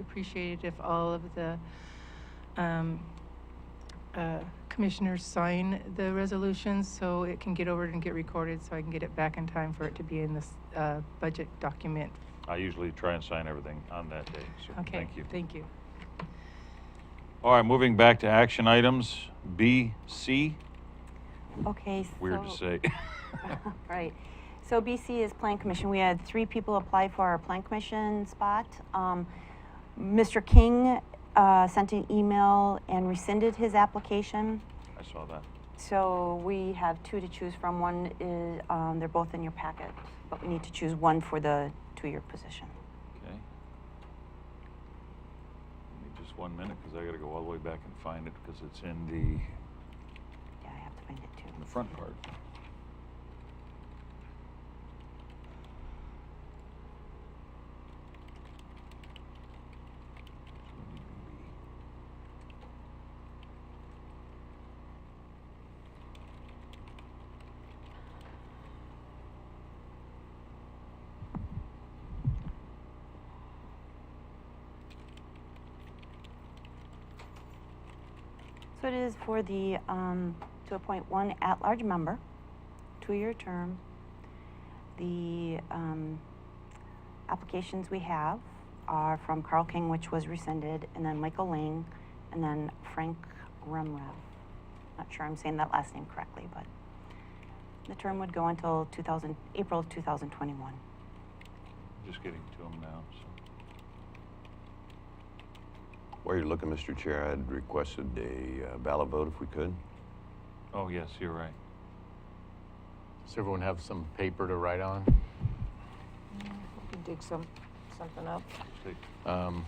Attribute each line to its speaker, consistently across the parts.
Speaker 1: appreciate it if all of the um, uh, commissioners sign the resolutions so it can get over and get recorded, so I can get it back in time for it to be in this uh, budget document.
Speaker 2: I usually try and sign everything on that day, so
Speaker 1: Okay,
Speaker 2: thank you.
Speaker 1: thank you.
Speaker 2: All right, moving back to action items, B, C,
Speaker 3: Okay, so.
Speaker 2: weird to say.
Speaker 3: Right. So BC is Plan Commission. We had three people apply for our Plan Commission spot. Um, Mr. King uh, sent an email and rescinded his application.
Speaker 2: I saw that.
Speaker 3: So we have two to choose from. One is, um, they're both in your packet, but we need to choose one for the two-year position.
Speaker 2: Okay. Give me just one minute, because I gotta go all the way back and find it, because it's in the,
Speaker 3: Yeah, I have to find it
Speaker 2: in the
Speaker 3: too.
Speaker 2: front part.
Speaker 3: So it is for the, um, to appoint one at-large member, two-year term. The, um, applications we have are from Carl King, which was rescinded, and then Michael Lang, and then Frank Remrev. Not sure I'm saying that last name correctly, but the term would go until two thousand, April two thousand twenty-one.
Speaker 2: Just getting to them now, so.
Speaker 4: While you're looking, Mr. Chair, I'd requested a uh, ballot vote if we could.
Speaker 2: Oh, yes, you're right.
Speaker 5: Does everyone have some paper to write on?
Speaker 6: We can dig some, something up.
Speaker 2: Just take-
Speaker 5: Um,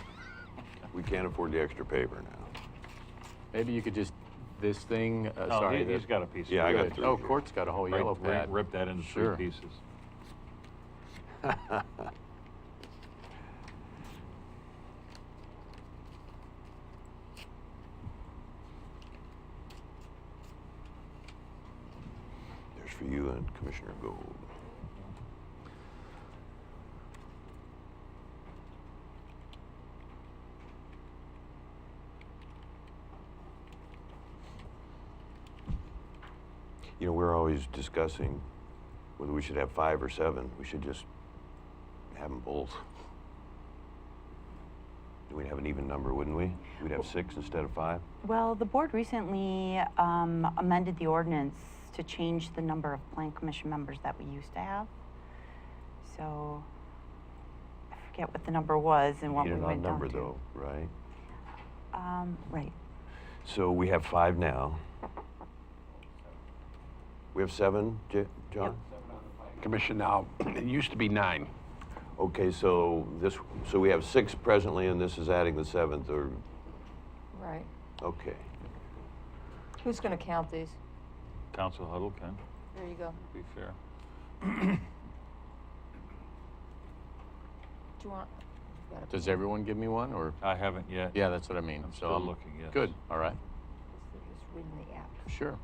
Speaker 4: We can't afford the extra paper now.
Speaker 5: maybe you could just, this thing, uh,
Speaker 2: No,
Speaker 5: sorry.
Speaker 2: Oh, he-
Speaker 5: the-
Speaker 2: he's got a piece. of
Speaker 4: Yeah, I
Speaker 2: it.
Speaker 4: got
Speaker 5: Good.
Speaker 4: three
Speaker 5: Oh,
Speaker 4: here.
Speaker 5: Court's got a whole
Speaker 2: Right,
Speaker 5: yellow
Speaker 2: right,
Speaker 5: pad.
Speaker 2: Rip that into three
Speaker 5: Sure.
Speaker 2: pieces.
Speaker 4: There's for you and Commissioner Gold. You know, we're always discussing whether we should have five or seven. We should just have them both. We'd have an even number, wouldn't we? We'd have six instead of five.
Speaker 3: Well, the board recently um, amended the ordinance to change the number of plan commission members that we used to have. So I forget what the number was and what
Speaker 4: Need
Speaker 3: we
Speaker 4: an
Speaker 3: went
Speaker 4: odd number,
Speaker 3: down to.
Speaker 4: though, right?
Speaker 3: Um, right.
Speaker 4: So we have five now. We have seven, J- John?
Speaker 7: Commission now, it used to be nine.
Speaker 4: Okay, so this, so we have six presently, and this is adding the seventh, or,
Speaker 6: Right.
Speaker 4: okay.
Speaker 6: Who's gonna count these?
Speaker 2: Council huddle, Ken,
Speaker 6: There you go.
Speaker 2: be fair.
Speaker 6: Do you want? you got a
Speaker 5: Does
Speaker 6: pen?
Speaker 5: everyone give me one, or?
Speaker 2: I haven't yet.
Speaker 5: Yeah, that's what I mean.
Speaker 2: Uh, I'm
Speaker 5: So
Speaker 2: still looking, yes.
Speaker 5: Good, all right,
Speaker 6: Just reading the app.
Speaker 5: sure.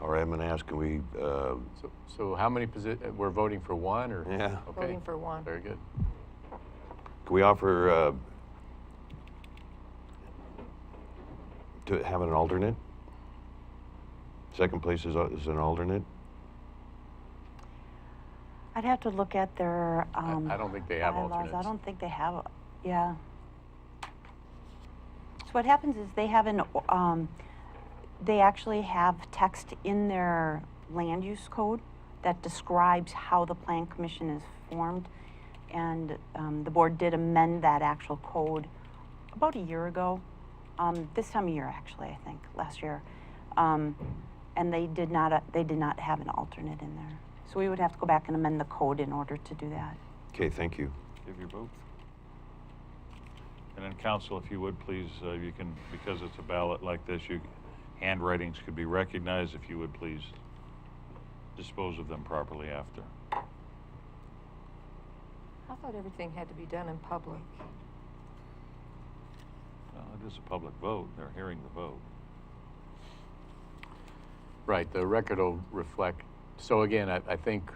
Speaker 4: All right, I'm gonna ask, can we, uh,
Speaker 5: So, so how many posi, uh, we're voting for one, or?
Speaker 4: Yeah.
Speaker 5: Okay,
Speaker 6: Voting for one.
Speaker 5: Very good.
Speaker 4: can we offer, uh, to have an alternate? Second place is, a- is an alternate?
Speaker 3: I'd have to look at their.
Speaker 5: I-
Speaker 3: Um,
Speaker 5: I don't think they have
Speaker 3: bylaws. I
Speaker 5: alternates.
Speaker 3: don't think they have. Yeah. So what happens is they have an. o- Um, they actually have text in their land use code that describes how the plan commission is formed, and um, the board did amend that actual code about a year ago. Um, this time of year, actually, I think last year, um, and they did not. Uh, they did not have an alternate in there. So we would have to go back and amend the code in order to do that.
Speaker 4: Okay, thank you.
Speaker 2: Give your vote. And then council, if you would, please, uh, you can, because it's a ballot like this, you, handwritings could be recognized, if you would please dispose of them properly after.
Speaker 6: I thought everything had to be done in public.
Speaker 2: Well, it is a public vote, they're hearing the vote.
Speaker 5: Right, the record will reflect, so again, I, I think